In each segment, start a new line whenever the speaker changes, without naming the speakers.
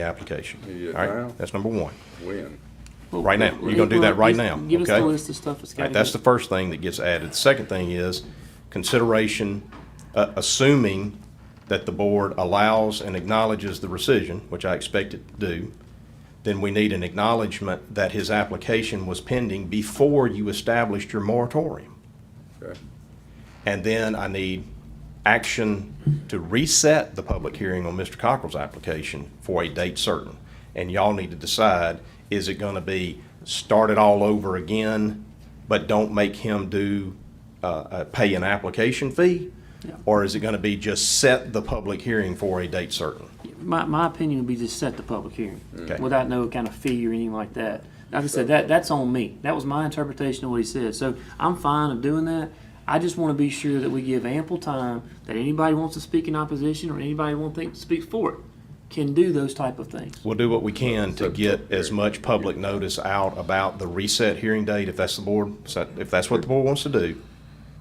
the application.
Yeah,
All
now?
right, that's number one.
When?
Right now. You're gonna do that right now,
Give us the
okay?
list of stuff that's
All
got
right, that's the first thing that gets added. The second thing is consideration, uh, assuming that the board allows and acknowledges the rescission, which I expect it to do, then we need an acknowledgement that his application was pending before you established your moratorium.
Okay.
And then I need action to reset the public hearing on Mr. Cockrell's application for a date certain. And y'all need to decide, is it gonna be start it all over again, but don't make him do, uh, uh, pay an application fee?
Yeah.
Or is it gonna be just set the public hearing for a date certain?
My, my opinion would be just set the public hearing
Okay.
without no kind of fee or anything like that. Like I said, that, that's on me. That was my interpretation of what he said. So I'm fine of doing that. I just want to be sure that we give ample time that anybody wants to speak in opposition or anybody wants to speak for it can do those type of things.
We'll do what we can to
Set the
get
public
as
hearing.
much public notice out about the reset hearing date, if that's the board, if that's what the board wants to do,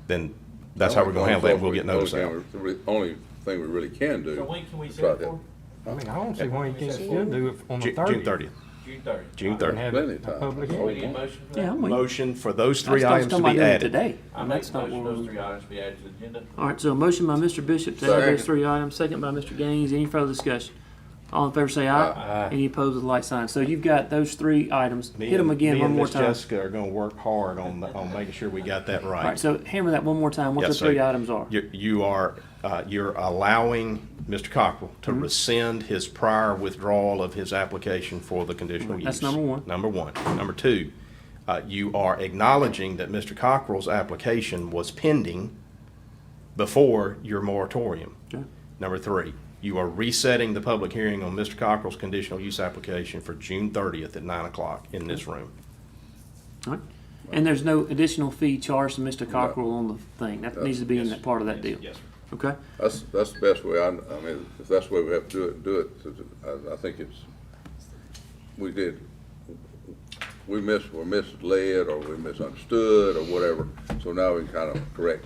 then that's how we're gonna handle that, and we'll get notice out.
Only thing we- Only thing we really can do.
So when can we
is
set it
try
for?
I mean, I don't see why you can't still do it on the
Ju-
thirtieth.
June thirtieth,
June thirtieth.
June
And
thirtieth.
have
Plenty
a
of time.
public
We
hearing.
need a motion for that?
Yeah, I'm with you.
Motion for those
That's
three
what I
items
was
to
talking about
be
doing
added.
Today.
I
And
make
that's
a
not
motion,
what
those
we're.
three items be added to the agenda.
All right, so a motion by Mr. Bishop to add those
Second.
three items, second by Mr. Gaines. Any further discussion? All in favor say aye. Any opposed with a light sign. So you've got those three items.
Me
Hit them
and-
again
me
one
and
more
Miss
time.
Jessica are gonna work hard on, the- on making sure we got that
All right,
right.
so hammer that one more time, what
Yes,
the
sir.
three items are.
You, you are, uh, you're allowing Mr. Cockrell to
Mm-hmm.
rescind his prior withdrawal of his application for the conditional use.
That's number one.
Number one. Number two, uh, you are acknowledging that Mr. Cockrell's application was pending before your moratorium.
Okay.
Number three, you are resetting the public hearing on Mr. Cockrell's conditional use application for June thirtieth at nine o'clock in this room.
All right. And there's no additional fee charged to Mr. Cockrell on the thing. That needs to be in that part of that deal.
Yes, sir.
Okay?
That's, that's the best way, I, I mean, if that's the way we have to do it, do it, to- to- I, I think it's, we did, we mis, were misled, or we misunderstood, or whatever, so now we can kind of correct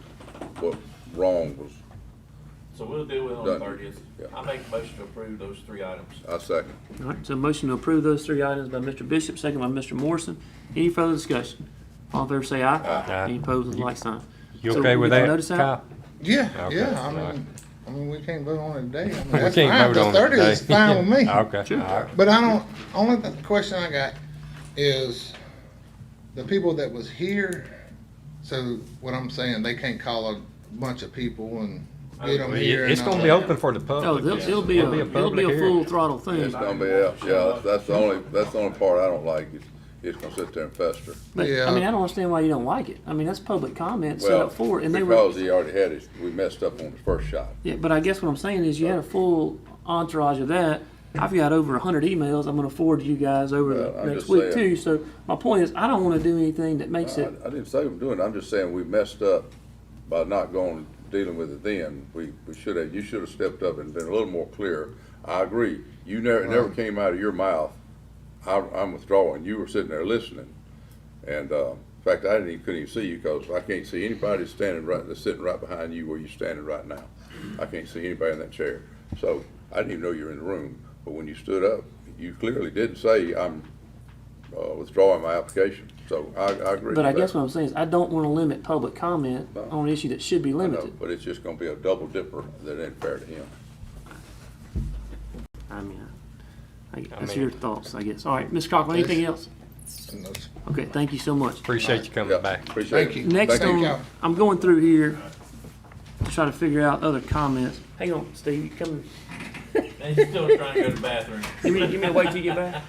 what wrong was,
So we'll deal with it on
Done.
the thirtieth.
Yeah.
I make a motion to approve those three items.
I second.
All right, so motion to approve those three items by Mr. Bishop, second by Mr. Morrison. Any further discussion? All in favor say aye.
Aye.
Any opposed with a light sign.
You
So
okay
we
with
get the
that,
notice out?
Kyle?
Yeah,
Okay,
yeah, I
alright.
mean, I mean, we can't vote on it today. I mean,
We
that's
can't
fine,
vote on
the
it today.
thirty is fine with me.
Okay, all right.
But I don't, only th- question I got is the people that was here, so what I'm saying, they can't call a bunch of people and get them here
Uh, It's
and all
gonna be
that.
open for the public.
No, it'll, it'll Oh, be a, it'll be
public
a
hearing.
full throttle thing.
It's gonna be, out. yeah, that's, that's the only, that's the only part I don't like, is, it's gonna sit there and fester.
But,
Yeah.
I mean, I don't understand why you don't like it. I mean, that's public comment set
Well,
up for it, and they were.
Because he already had his, we messed up on his first shot.
Yeah, but I guess what I'm saying is you had a full entourage of that. I've got over hundred emails I'm gonna forward to you guys over
Well,
the
I'm
next
just
week
saying.
too, so my point is, I don't wanna do anything that makes it,
I I didn't say we're doing it, I'm just saying we messed up by not going, dealing with it then. We, we should have, you should have stepped up and been a little more clear. I agree, you never, it never came out of your mouth, I, I'm withdrawing, you were sitting there listening. And, uh, in fact, I didn't, even- couldn't even see you, cause I can't see anybody standing right, that's sitting right behind you where you're standing right now. I can't see anybody in that chair, so I didn't even know you were in the room, but when you stood up, you clearly didn't say, I'm, uh, withdrawing my application, so I, I agree with that.
but I guess what I'm saying is, I don't wanna limit public comment
No.
on an issue that should be
I know,
limited.
But it's just gonna be a double dipper that ain't fair to him.
I mean, I, that's your thoughts, I guess. All right, Ms. Cochran, anything else?
And those-
Okay, thank you so much.
Appreciate you
Yeah,
coming back.
Appreciate it.
Thank you.
Next
Thank you.
you.
on, I'm going through here to try to figure out other comments. Hang on, Steve, you come,
And he's still trying to go to the bathroom.
give me, give me a wait till you get back.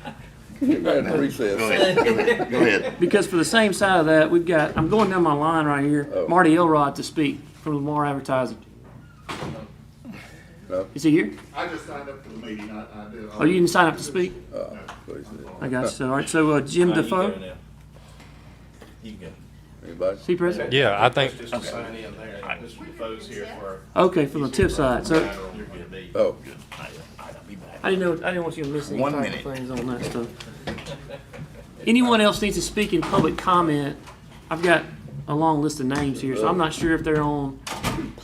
You had a recess.
Because for the same side of that, we've got, I'm going down my line right here,
Oh.
Marty Elrod to speak from Lamar Advertising.
No.
Is he here?
I just signed up for the meeting, I, I do.
Oh, you didn't sign up to speak?
Uh, Please,
I got you. So, All right, so uh, Jim
Now you go
Defoe,
now. You can go.
Anybody?
is he present?
Yeah, I think,
Just to sign in there, Mr. Defoe's here for.
Okay, from the tip side, so
You're good, B.
Oh,
I didn't know, I didn't want you to miss any type of things on that stuff. Anyone else needs to speak in public comment? I've got a long list of names here, so I'm not sure if they're on,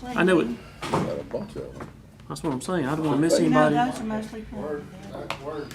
I know it,
got a bunch of them.
that's what I'm saying, I don't wanna miss anybody.
those are mostly.
no.